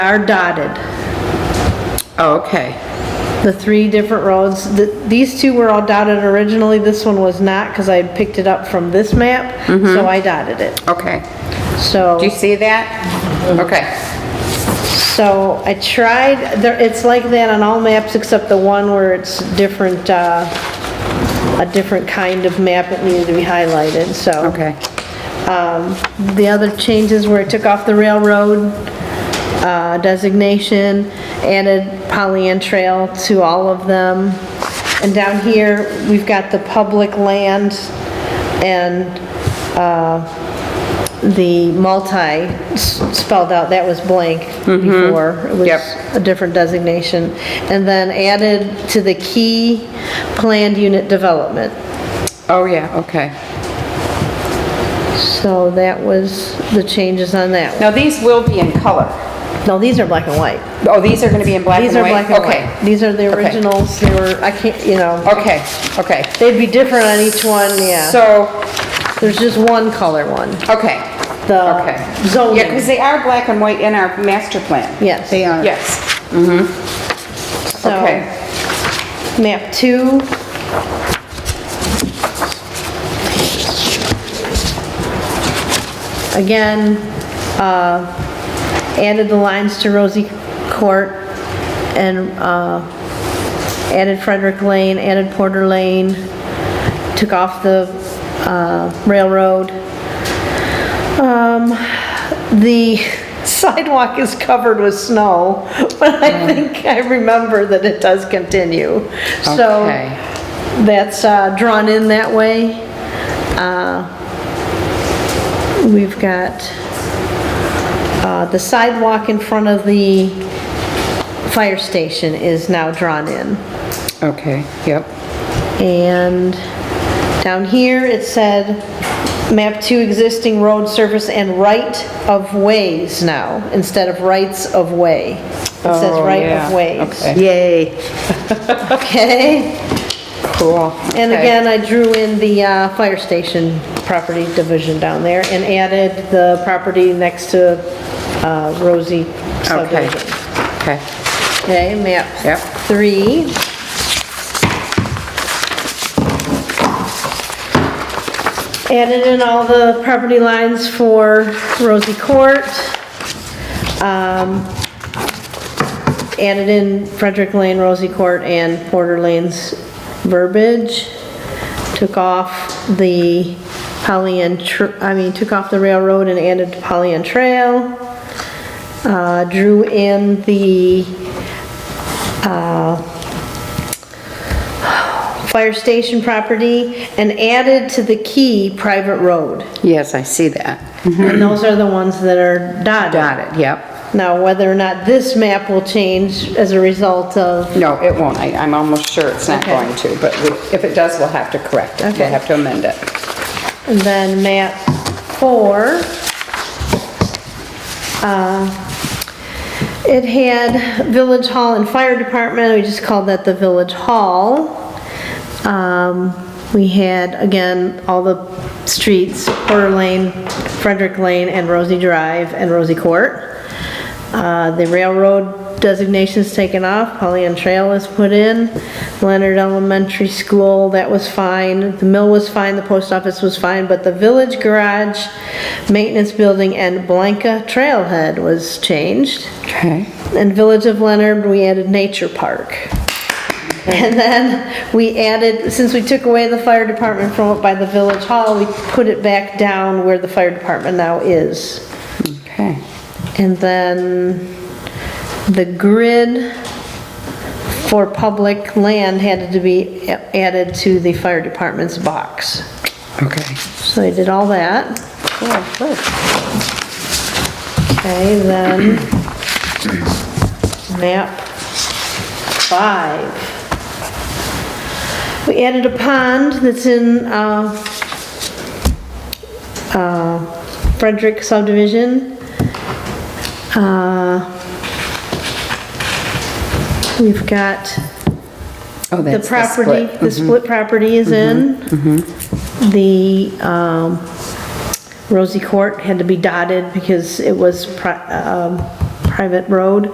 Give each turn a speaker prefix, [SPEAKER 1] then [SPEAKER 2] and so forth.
[SPEAKER 1] are dotted,
[SPEAKER 2] Oh, Okay.
[SPEAKER 1] the three different roads. th- These two were all dotted originally, this one was not, because I had picked it up from this map, so I dotted it.
[SPEAKER 2] Okay.
[SPEAKER 1] So,
[SPEAKER 2] Mm-hmm. Do you see that? Okay.
[SPEAKER 1] so I tried, there- it's like that on all maps except the one where it's different, uh, a different kind of map it needed to be highlighted, so.
[SPEAKER 2] Okay.
[SPEAKER 1] Um, The other changes were it took off the railroad uh, designation, added Pollyant Trail to all of them. And down here, we've got the public land and uh, the multi s- spelled out, that was blank before. It was
[SPEAKER 2] Yep.
[SPEAKER 1] a different designation. And then added to the key planned unit development.
[SPEAKER 2] Oh, yeah, okay.
[SPEAKER 1] So that was the changes on that one.
[SPEAKER 2] Now, these will be in color.
[SPEAKER 1] No, these are black and white.
[SPEAKER 2] Oh, these are going to be in black and
[SPEAKER 1] These are
[SPEAKER 2] white?
[SPEAKER 1] black and white. These are the
[SPEAKER 2] Okay.
[SPEAKER 1] originals, they were, I can't, you know,
[SPEAKER 2] Okay, okay, okay.
[SPEAKER 1] they'd be different on each one, yeah.
[SPEAKER 2] So,
[SPEAKER 1] There's just one color one,
[SPEAKER 2] okay,
[SPEAKER 1] the
[SPEAKER 2] okay. Yeah, because
[SPEAKER 1] Uh, zoning.
[SPEAKER 2] they are black and white in our master plan.
[SPEAKER 1] Yes. They are.
[SPEAKER 2] Yes,
[SPEAKER 1] So,
[SPEAKER 2] okay.
[SPEAKER 1] map two. Again, uh, added the lines to Rosie Court and, uh, added Frederick Lane, added Porter Lane, took off the, uh, railroad. Um, the sidewalk is covered with snow, but I think I remember that it does continue. So
[SPEAKER 2] Okay.
[SPEAKER 1] that's uh, drawn in that way. Uh, We've got uh, the sidewalk in front of the fire station is now drawn in.
[SPEAKER 2] Okay, yep.
[SPEAKER 1] And down here, it said, map two existing road surface and right of ways now, instead of rights of way. It says
[SPEAKER 2] Oh,
[SPEAKER 1] right
[SPEAKER 2] yeah,
[SPEAKER 1] of ways.
[SPEAKER 2] okay.
[SPEAKER 1] Yay. Okay,
[SPEAKER 2] Cool.
[SPEAKER 1] and
[SPEAKER 2] okay.
[SPEAKER 1] again, I drew in the uh, fire station property division down there and added the property next to uh, Rosie
[SPEAKER 2] Okay,
[SPEAKER 1] subdivision.
[SPEAKER 2] okay.
[SPEAKER 1] Okay, map
[SPEAKER 2] Yep.
[SPEAKER 1] three. Added in all the property lines for Rosie Court. Um, Added in Frederick Lane, Rosie Court, and Porter Lane's verbiage. Took off the Polly and, Tr- I mean, took off the railroad and added Polly and Trail. Uh, Drew in the fire station property and added to the key private road.
[SPEAKER 2] Yes, I see that.
[SPEAKER 1] And those are the ones that are dotted.
[SPEAKER 2] Got it, yep.
[SPEAKER 1] Now, whether or not this map will change as a result of,
[SPEAKER 2] No, it won't. I, I'm almost sure it's not
[SPEAKER 1] Okay.
[SPEAKER 2] going to, but we- if it does, we'll have to correct it.
[SPEAKER 1] Okay.
[SPEAKER 2] We'll have to amend it.
[SPEAKER 1] and then map four. uh, It had village hall and fire department, we just called that the village hall. Um, We had, again, all the streets, Porter Lane, Frederick Lane, and Rosie Drive, and Rosie Court. Uh, The railroad designation's taken off, Pollyant Trail is put in, Leonard Elementary School, that was fine, the mill was fine, the post office was fine, but the village garage, maintenance building, and Blanca Trailhead was changed.
[SPEAKER 2] Okay.
[SPEAKER 1] And Village of Leonard, we added Nature Park. And then we added, since we took away the fire department from it by the village hall, we put it back down where the fire department now is.
[SPEAKER 2] Okay.
[SPEAKER 1] And then the grid for public land had to be added to the fire department's box.
[SPEAKER 2] Okay.
[SPEAKER 1] So I did all that.
[SPEAKER 2] Cool, good.
[SPEAKER 1] Okay, then, map five. We added a pond that's in, uh, uh, Frederick subdivision. Uh, We've got
[SPEAKER 2] Oh,
[SPEAKER 1] the
[SPEAKER 2] that's the
[SPEAKER 1] property,
[SPEAKER 2] split. Mm-hmm.
[SPEAKER 1] the split property is in. The um, Rosie Court had to be dotted because it was pri- um, pri- private road.